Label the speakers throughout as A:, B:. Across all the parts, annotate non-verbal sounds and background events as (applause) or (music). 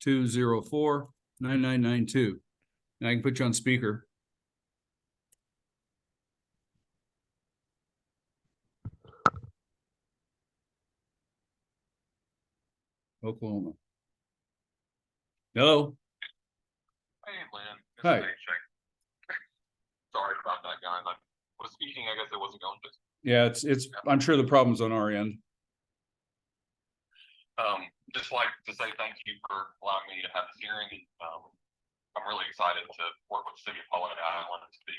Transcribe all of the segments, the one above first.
A: two zero four nine nine nine two. And I can put you on speaker. Oklahoma. Hello?
B: Hey, Lynn. This is
A: Hi.
B: Paycheck. (laughs) Sorry about that, guys. I was speaking, I guess it wasn't going, but,
A: Yeah, it's, it's, I'm sure the problem's on our end.
B: um, just like to say thank you for allowing me to have this hearing. Um, I'm really excited to work with the City of Holiday Island to be,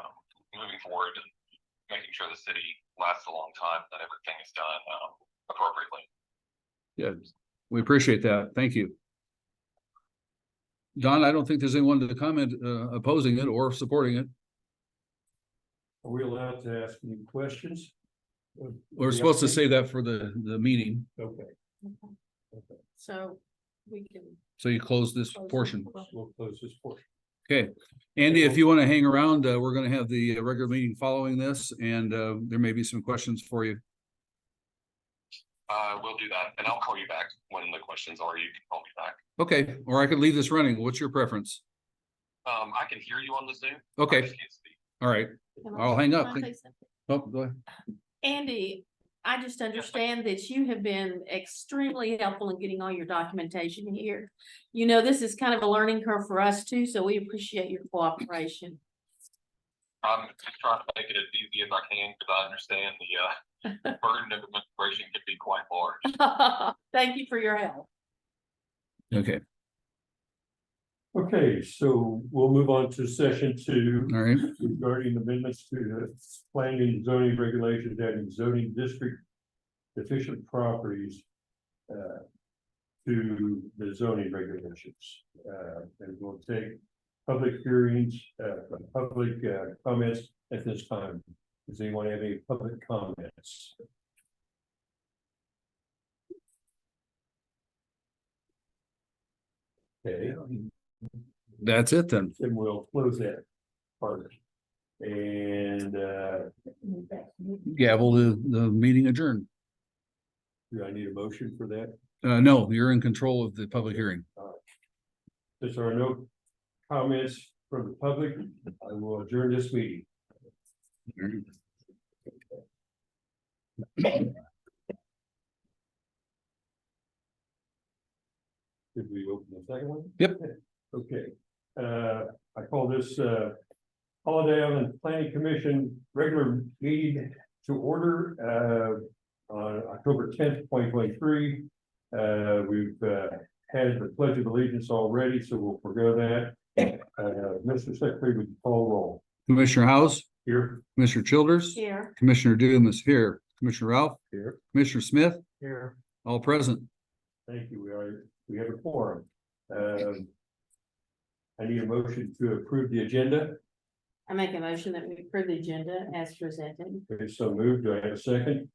B: um, moving forward and making sure the city lasts a long time, that everything is done, um, appropriately.
A: Yeah, we appreciate that. Thank you. Don, I don't think there's anyone to comment uh, opposing it or supporting it.
C: Are we allowed to ask any questions?
A: We're supposed to say that for the, the meeting.
C: Okay,
D: So we can.
A: So you close this portion.
C: we'll close this portion.
A: Andy, if you want to hang around, uh, we're going to have the regular meeting following this and uh, there may be some questions for you.
B: Uh, we'll do that, and I'll call you back when the questions are, you can call me back.
A: Okay, or I could leave this running. What's your preference?
B: Um, I can hear you on the Zoom. I
A: Okay,
B: just can't speak.
A: all right.
D: Can I-
A: I'll hang
D: can
A: up.
D: I say something?
A: Oh, go ahead.
D: Andy, I just understand that you have been extremely helpful in getting all your documentation here. You know, this is kind of a learning curve for us too, so we appreciate your cooperation. (laughs)
B: I'm just trying to make it as easy as I can, because I understand the, uh, burden of administration can be quite large.
D: Thank you for your help.
A: Okay,
C: Okay, so we'll move on to session two
A: all right.
C: regarding amendments to the planning and zoning regulations adding zoning district efficient properties uh, to the zoning regulations. Uh, and we'll take public hearings, uh, public uh, comments at this time. Does anyone have any public comments? Okay.
A: That's it then.
C: And we'll close that part. And uh,
A: Gavel the, the meeting adjourned.
C: do I need a motion for that?
A: Uh, no, you're in control of the public hearing.
C: Since there are no comments from the public, I will adjourn this meeting. Did we open the second one?
A: Yep.
C: Okay, uh, I call this, uh, Holiday Island Planning Commission regular meeting to order, uh, on October tenth, twenty twenty-three. Uh, we've, uh, had the pledge of allegiance already, so we'll forego that. Uh, Mr. Secretary, would you call roll
A: Commissioner House,
C: here?
A: Commissioner Childers.
D: Here.
A: Commissioner Doom is here. Commissioner Ralph,
C: Here.
A: Commissioner Smith,
C: Here.
A: all present.
C: Thank you. We are, we have a forum. Um. I need a motion to approve the agenda.
D: I make a motion that we approve the agenda as presented.
C: If so moved, do I have a second?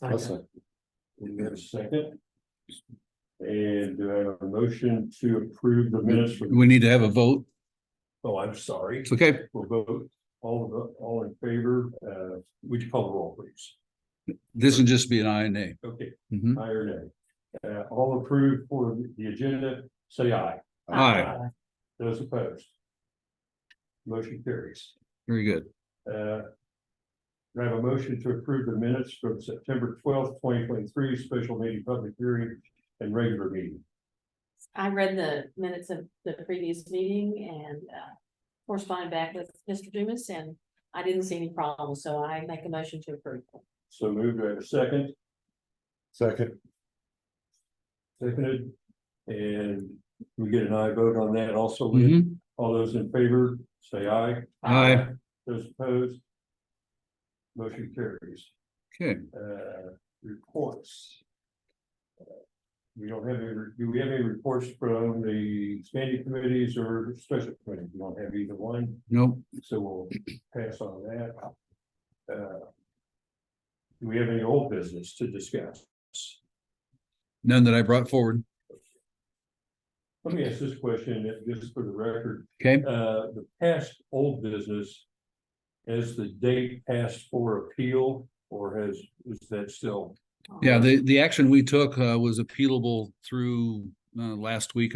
C: We have a second. And do I have a motion to approve the minutes from,
A: We need to have a vote.
C: oh, I'm sorry.
A: It's okay.
C: We'll vote all, of the- all in favor. Uh, would you call the roll, please?
A: This would just be an I and A.
C: Okay,
A: Mhm.
C: aye or nay? Uh, all approved for the agenda, say aye.
A: Aye.
C: Those opposed? Motion carries.
A: Very good.
C: Uh. do I have a motion to approve the minutes from September twelfth, twenty twenty-three, special meeting, public hearing and regular meeting.
D: I read the minutes of the previous meeting and uh, corresponded back with Mr. Dumas and I didn't see any problems, so I make a motion to approve.
C: So moved, do I have a second? Second. Seconded, and we get an aye vote on that also, Lynn?
A: Mhm.
C: all those in favor, say aye.
A: Aye.
C: Those opposed? Motion carries.
A: Okay.
C: Uh, reports. We don't have any, do we have any reports from the standing committees or special committees? We don't have either one,
A: Nope.
C: so we'll pass on that. Uh, Do we have any old business to discuss?
A: None that I brought forward.
C: Let me ask this question, uh, just for the record.
A: Okay.
C: uh, the past old business. Has the date passed for appeal or has, is that still?
A: Yeah, the, the action we took, uh, was appealable through, uh, last week,